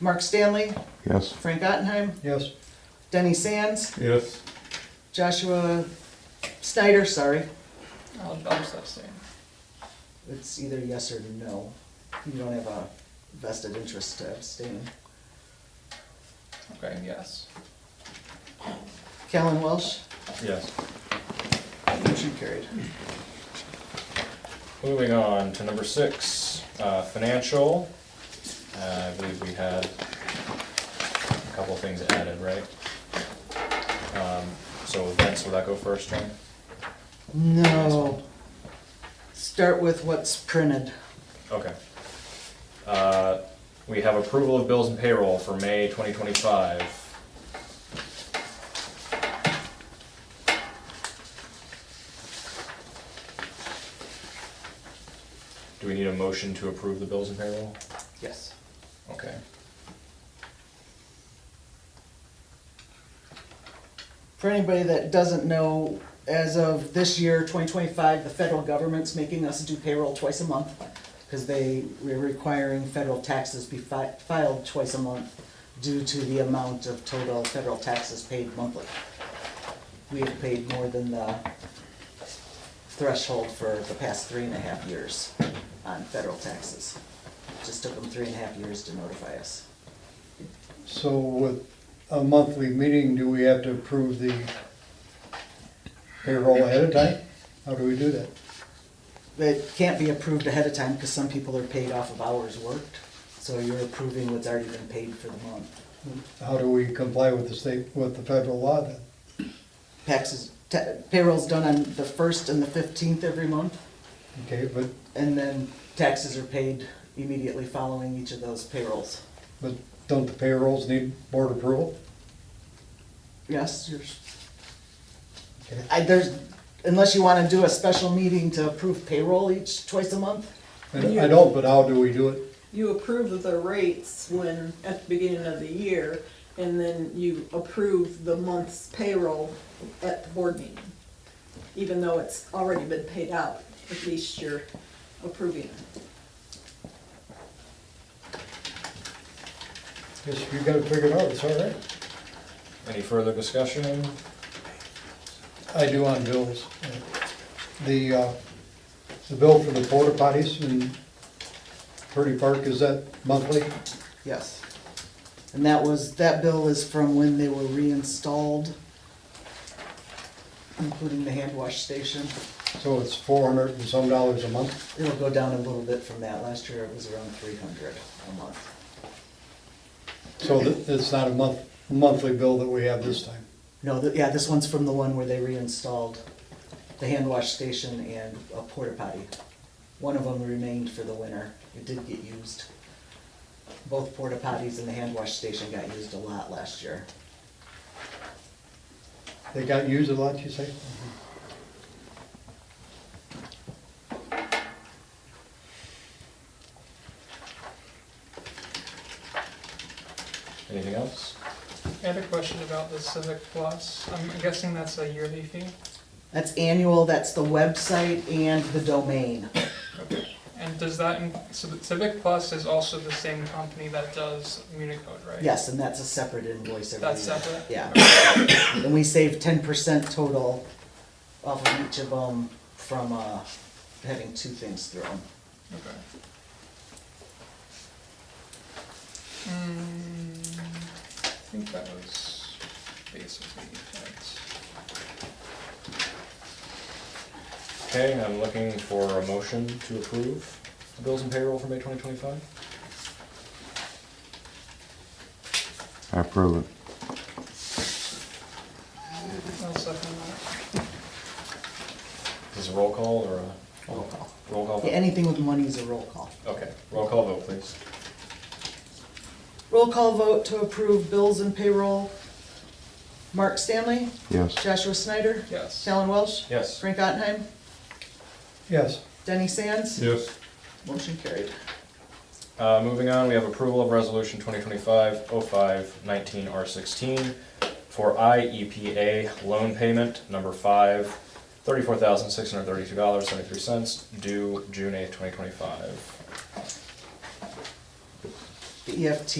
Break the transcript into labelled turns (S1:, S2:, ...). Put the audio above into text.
S1: Mark Stanley,
S2: Yes.
S1: Frank Ottenheim,
S3: Yes.
S1: Denny Sands,
S3: Yes.
S1: Joshua Snyder, sorry.
S4: I'll also say.
S1: It's either yes or no. You don't have a vested interest to abstain.
S4: Okay, yes.
S1: Callan Welsh,
S5: Yes.
S1: motion carried.
S5: Moving on to number six, uh, financial. Uh, I believe we had a couple of things added, right? Um, So Vince, will that go first, John?
S1: No. Start with what's printed.
S5: Okay. Uh, We have approval of bills and payroll for May 2025. Do we need a motion to approve the bills and payroll?
S1: Yes.
S5: Okay.
S1: For anybody that doesn't know, as of this year, twenty twenty-five, the federal government's making us do payroll twice a month because they were requiring federal taxes be fi- filed twice a month due to the amount of total federal taxes paid monthly. We have paid more than the threshold for the past three and a half years on federal taxes. Just took them three and a half years to notify us.
S3: So with a monthly meeting, do we have to approve the payroll ahead of time? How do we do that?
S1: It can't be approved ahead of time because some people are paid off of hours worked. So you're approving what's already been paid for the month.
S3: How do we comply with the state, with the federal law then?
S1: Taxes, ta- payroll's done on the first and the fifteenth every month,
S3: Okay, but,
S1: and then taxes are paid immediately following each of those payrolls.
S3: but don't the payrolls need board approval?
S1: Yes, yours.
S3: Okay.
S1: I, there's, unless you want to do a special meeting to approve payroll each, twice a month?
S3: And I don't, but how do we do it?
S6: You approve of the rates when, at the beginning of the year, and then you approve the month's payroll at the board meeting. Even though it's already been paid out, at least you're approving it.
S3: Yes, you gotta figure it out, it's all right.
S5: Any further discussion?
S3: I do on bills. The, uh, the bill for the porta potties in Purdy Park, is that monthly?
S1: Yes. And that was, that bill is from when they were reinstalled, including the hand wash station.
S3: So it's four hundred and some dollars a month?
S1: It'll go down a little bit from that. Last year it was around three hundred a month.
S3: So th- it's not a month, monthly bill that we have this time?
S1: No, th yeah, this one's from the one where they reinstalled the hand wash station and a porta potty. One of them remained for the winter. It did get used. Both porta potties and the hand wash station got used a lot last year.
S3: They got used a lot, you say?
S5: Anything else?
S4: I had a question about the Civic Plus. I'm guessing that's a yearly fee.
S1: That's annual, that's the website and the domain.
S4: And does that, in- so the Civic Plus is also the same company that does Municode, right?
S1: Yes, and that's a separate invoice every year.
S4: That's separate?
S1: Yeah. And we save ten percent total off of each of them from, uh, having two things through 'em.
S4: Okay. Mm, I think that was basically it.
S5: Okay, I'm looking for a motion to approve the bills and payroll for May 2025.
S2: I approve it.
S4: I'll second that.
S5: Is this a roll call or a? Roll call. Roll call
S1: Yeah,
S5: vote?
S1: Anything with money is a roll call.
S5: Okay, roll call vote, please.
S1: Roll call vote to approve bills and payroll. Mark Stanley,
S2: Yes.
S1: Joshua Snyder,
S4: Yes.
S1: Alan Welsh,
S5: Yes.
S1: Frank Ottenheim,
S3: Yes.
S1: Denny Sands.
S3: Yes.
S1: Motion carried.
S5: Uh, moving on, we have approval of resolution 2025-05-19R16 for IEPA loan payment number five, $34,632.73 due June 8th, 2025.
S1: The EFT